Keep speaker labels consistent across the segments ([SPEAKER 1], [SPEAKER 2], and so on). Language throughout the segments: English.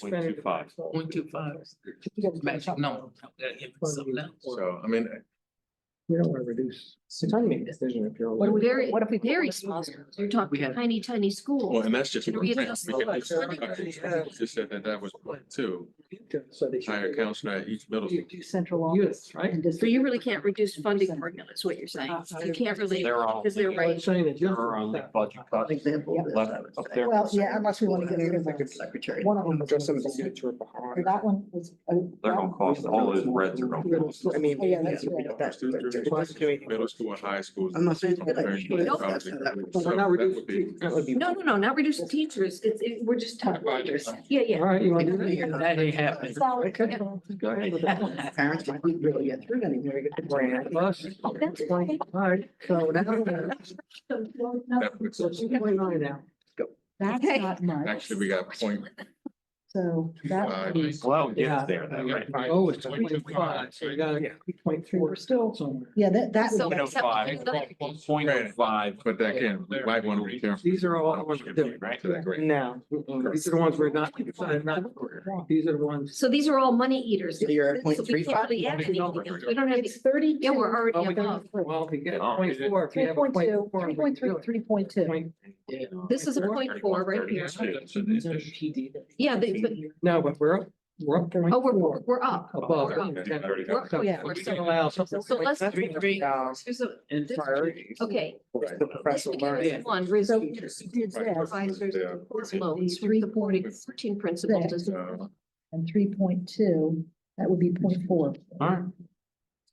[SPEAKER 1] Point two five.
[SPEAKER 2] Point two five. Magic number. Gotta give it something else.
[SPEAKER 1] So, I mean,
[SPEAKER 3] We don't want to reduce. So trying to make a decision if you're.
[SPEAKER 4] What do we,
[SPEAKER 5] Very-
[SPEAKER 4] what if we?
[SPEAKER 5] Very small schools. You're talking
[SPEAKER 2] We had-
[SPEAKER 5] tiny, tiny
[SPEAKER 1] well,
[SPEAKER 5] schools.
[SPEAKER 1] and that's just.
[SPEAKER 5] Can
[SPEAKER 1] one
[SPEAKER 5] we
[SPEAKER 1] thing.
[SPEAKER 5] adjust
[SPEAKER 1] We can
[SPEAKER 5] the-
[SPEAKER 1] just clarify. Just said that that was point two,
[SPEAKER 3] So they should-
[SPEAKER 1] hire counselor at each middle. school.
[SPEAKER 4] Do central office.
[SPEAKER 3] Yes, right?
[SPEAKER 4] and district-
[SPEAKER 5] So you really can't reduce funding formula is what you're saying. You can't really,
[SPEAKER 6] They're all.
[SPEAKER 5] because they're
[SPEAKER 3] But I'm
[SPEAKER 5] right.
[SPEAKER 3] saying that just-
[SPEAKER 6] Her only budget cuts
[SPEAKER 4] Yeah.
[SPEAKER 6] left up there.
[SPEAKER 4] Well, yeah, unless we want to get rid of
[SPEAKER 7] Executive
[SPEAKER 4] it.
[SPEAKER 7] secretary.
[SPEAKER 4] One of them was-
[SPEAKER 7] Just in the future
[SPEAKER 4] And
[SPEAKER 7] behind.
[SPEAKER 4] That one was.
[SPEAKER 6] They're gonna cost, all those reds are gonna cost.
[SPEAKER 7] I mean.
[SPEAKER 4] Oh, yeah, that's right.
[SPEAKER 7] that's- that's-
[SPEAKER 1] Middle school and high school.
[SPEAKER 7] I'm not saying.
[SPEAKER 1] Very good. Probably good. So
[SPEAKER 3] But we're
[SPEAKER 1] that
[SPEAKER 3] not
[SPEAKER 1] would be-
[SPEAKER 3] reducing, that would be.
[SPEAKER 5] No, no, no, not reduce the teachers. It's, it- we're just talking about teachers. Yeah,
[SPEAKER 3] All
[SPEAKER 5] yeah.
[SPEAKER 3] right, you want to do that?
[SPEAKER 2] That ain't happening.
[SPEAKER 3] Okay, go ahead with that.
[SPEAKER 7] Parents might be really get through any very good brand.
[SPEAKER 3] Plus,
[SPEAKER 5] That's okay.
[SPEAKER 3] all right, so now.
[SPEAKER 5] So, well,
[SPEAKER 1] that
[SPEAKER 5] no,
[SPEAKER 1] would-
[SPEAKER 3] So two point nine now.
[SPEAKER 4] That's
[SPEAKER 5] Okay.
[SPEAKER 4] not much.
[SPEAKER 1] Actually, we got point
[SPEAKER 4] So that.
[SPEAKER 1] five.
[SPEAKER 6] Well, it gets there, though, right?
[SPEAKER 3] Oh, it's twenty five, so you got a point three, we're still somewhere.
[SPEAKER 4] Yeah, that, that.
[SPEAKER 5] So-
[SPEAKER 4] would-
[SPEAKER 6] Point oh five, point oh five.
[SPEAKER 1] But that can, we might want to be careful.
[SPEAKER 3] These are all the ones we're doing.
[SPEAKER 6] Right?
[SPEAKER 1] To that grade.
[SPEAKER 3] No. These are the ones we're not, not, these are the ones.
[SPEAKER 5] So these are all money eaters.
[SPEAKER 7] So you're at
[SPEAKER 5] So we
[SPEAKER 7] 0.35.
[SPEAKER 5] can't really add anything else. We don't have,
[SPEAKER 4] It's thirty.
[SPEAKER 5] yeah, we're already above.
[SPEAKER 3] Well, if you get
[SPEAKER 6] Oh,
[SPEAKER 3] point four, if you
[SPEAKER 4] Three
[SPEAKER 3] have a
[SPEAKER 4] point
[SPEAKER 3] point
[SPEAKER 4] two,
[SPEAKER 3] four.
[SPEAKER 4] three point three, three point two.
[SPEAKER 5] This is a point four right here. Yeah, they, but,
[SPEAKER 3] No, but we're, up- we're up point
[SPEAKER 5] oh, we're,
[SPEAKER 3] four
[SPEAKER 5] we're we're up.
[SPEAKER 3] above.
[SPEAKER 5] We're-
[SPEAKER 3] So
[SPEAKER 5] yeah,
[SPEAKER 3] we
[SPEAKER 5] we're
[SPEAKER 3] can
[SPEAKER 5] still-
[SPEAKER 3] allow something.
[SPEAKER 5] So let's,
[SPEAKER 7] Three, three, uh,
[SPEAKER 5] here's a-
[SPEAKER 7] and priorities.
[SPEAKER 5] okay.
[SPEAKER 7] The professor learning.
[SPEAKER 5] One, risk
[SPEAKER 4] So you
[SPEAKER 5] teachers.
[SPEAKER 4] did this
[SPEAKER 5] Advisors,
[SPEAKER 1] Yeah.
[SPEAKER 5] course loans, three supporting, fourteen principals. does-
[SPEAKER 1] Uh,
[SPEAKER 4] and three point two, that would be point four.
[SPEAKER 6] All right.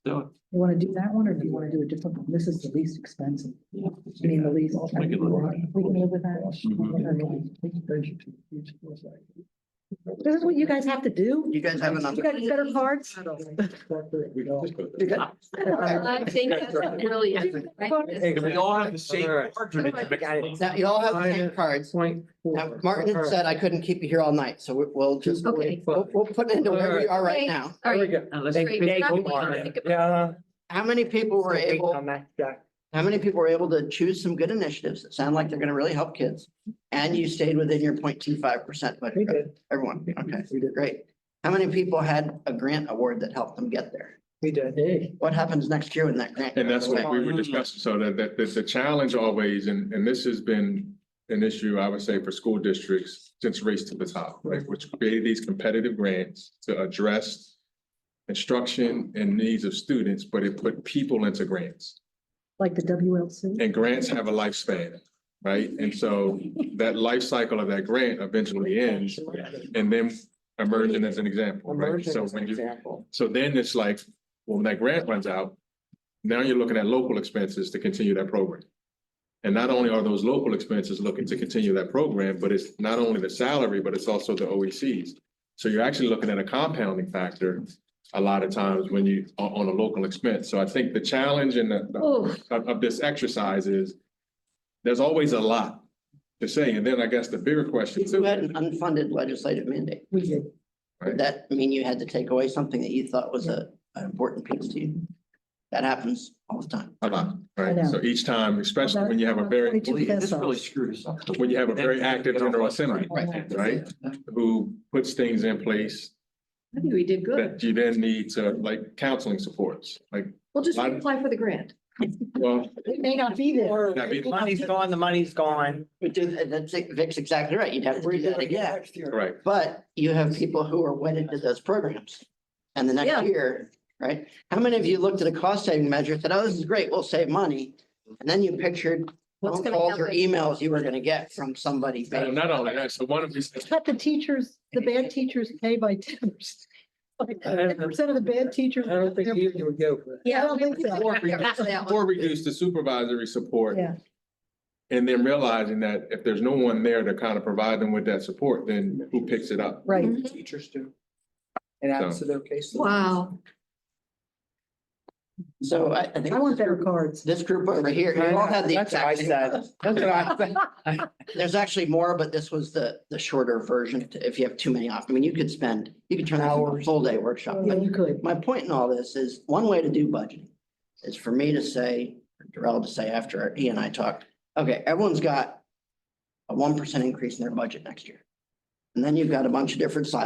[SPEAKER 6] Do it.
[SPEAKER 4] You want to do that one or do you want to do a different one? This is the least expensive. I mean, the least.
[SPEAKER 6] We can live with
[SPEAKER 4] We can live with that. This is what you guys have to do?
[SPEAKER 7] You guys have
[SPEAKER 4] You
[SPEAKER 7] another.
[SPEAKER 4] guys better cards?
[SPEAKER 1] we can just go there.
[SPEAKER 7] You got-
[SPEAKER 5] I think that's brilliant.
[SPEAKER 6] If we all have the same
[SPEAKER 3] All right.
[SPEAKER 6] margin, it makes sense.
[SPEAKER 7] Now, you all have the same cards.
[SPEAKER 3] Point
[SPEAKER 7] Now,
[SPEAKER 3] four.
[SPEAKER 7] Martin
[SPEAKER 3] All
[SPEAKER 7] had
[SPEAKER 3] right.
[SPEAKER 7] said I couldn't keep you here all night, so we- we'll just,
[SPEAKER 3] Two point
[SPEAKER 5] Okay.
[SPEAKER 3] five.
[SPEAKER 7] we'll, we'll put it into where we are right now.
[SPEAKER 5] All
[SPEAKER 3] There we
[SPEAKER 5] right.
[SPEAKER 3] go. Uh,
[SPEAKER 2] Now, let's-
[SPEAKER 5] Great. It's not what we wanna think about.
[SPEAKER 7] How many people were able? How many people were able to choose some good initiatives that sound like they're gonna really help kids? And you stayed within your 0.25 percent budget, growth? everyone, okay,
[SPEAKER 3] We did.
[SPEAKER 7] great. How many people had a grant award that helped them get there?
[SPEAKER 3] We did.
[SPEAKER 7] What happens next year when that grant?
[SPEAKER 1] And that's
[SPEAKER 7] goes
[SPEAKER 1] what
[SPEAKER 7] away?
[SPEAKER 1] we were discussing, so that, that, that the challenge always, and, and this has been an issue, I would say, for school districts since Race to the Top, right, which created these competitive grants to address instruction and needs of students, but it put people into grants.
[SPEAKER 4] Like the WLC?
[SPEAKER 1] And grants have a lifespan, right? And so that life cycle of that grant eventually ends, and then emerging as an example, right?
[SPEAKER 3] Immersion
[SPEAKER 1] So
[SPEAKER 3] is an
[SPEAKER 1] when you,
[SPEAKER 3] example.
[SPEAKER 1] so then it's like, well, when that grant runs out, now you're looking at local expenses to continue that program. And not only are those local expenses looking to continue that program, but it's not only the salary, but it's also the OECs. So you're actually looking at a compounding factor a lot of times when you, on, on a local expense. So I think the challenge and the, the-
[SPEAKER 5] Oh,
[SPEAKER 1] of, of this exercise is there's always a lot to say. And then I guess the bigger question
[SPEAKER 7] If you
[SPEAKER 1] too.
[SPEAKER 7] had an unfunded legislative mandate,
[SPEAKER 4] We did.
[SPEAKER 7] would that mean you had to take away something that you thought was a, an important piece to you? That happens all the time.
[SPEAKER 1] A lot,
[SPEAKER 4] I know.
[SPEAKER 1] right? So each time, especially when you have a very,
[SPEAKER 4] Twenty-two
[SPEAKER 6] Well, yeah, This
[SPEAKER 4] pesos.
[SPEAKER 6] really screws up.
[SPEAKER 1] when you have a very active general assembly, right? Who puts things in place
[SPEAKER 5] I think we did good.
[SPEAKER 1] that you then need to, like counseling supports, like,
[SPEAKER 5] We'll just apply for the grant.
[SPEAKER 1] well,
[SPEAKER 4] It may not be there.
[SPEAKER 1] I mean,
[SPEAKER 8] Money's gone, the money's gone.
[SPEAKER 7] But do- and that's, Vic's exactly right. You'd have to do that again.
[SPEAKER 1] right.
[SPEAKER 7] But you have people who are wedded to those programs. And the
[SPEAKER 5] Yeah.
[SPEAKER 7] next year, right? How many of you looked at a cost saving measure, said, oh, this is great, we'll save money? And then you pictured
[SPEAKER 5] What's
[SPEAKER 7] phone
[SPEAKER 5] gonna
[SPEAKER 7] calls or
[SPEAKER 5] happen?
[SPEAKER 7] emails you were gonna get from somebody.
[SPEAKER 1] And Not only that, so one of these,
[SPEAKER 4] Cut the teachers, the bad teachers pay by ten percent. Like ten percent of the bad teachers.
[SPEAKER 3] I don't think
[SPEAKER 4] they're-
[SPEAKER 3] you would go for that.
[SPEAKER 4] I don't think so.
[SPEAKER 1] or reduce- or reduce the supervisory support.
[SPEAKER 4] Yeah.
[SPEAKER 1] And then realizing that if there's no one there to kind of provide them with that support, then who picks it up?
[SPEAKER 4] Right.
[SPEAKER 7] Teachers do. In absence of their cases.
[SPEAKER 5] Wow.
[SPEAKER 7] So I, I think.
[SPEAKER 4] I want better cards.
[SPEAKER 7] This group over here, you all have the
[SPEAKER 8] That's what I
[SPEAKER 7] exact same-
[SPEAKER 8] said. That's what I said.
[SPEAKER 7] There's actually more, but this was the, the shorter version. If you have too many off, I mean, you could spend, you could turn this into a full day workshop.
[SPEAKER 4] Yeah,
[SPEAKER 7] but
[SPEAKER 4] you could.
[SPEAKER 7] my point in all this is, one way to do budgeting is for me to say, Darrell to say after he and I talked, okay, everyone's got a one percent increase in their budget next year. And then you've got a bunch of different sides.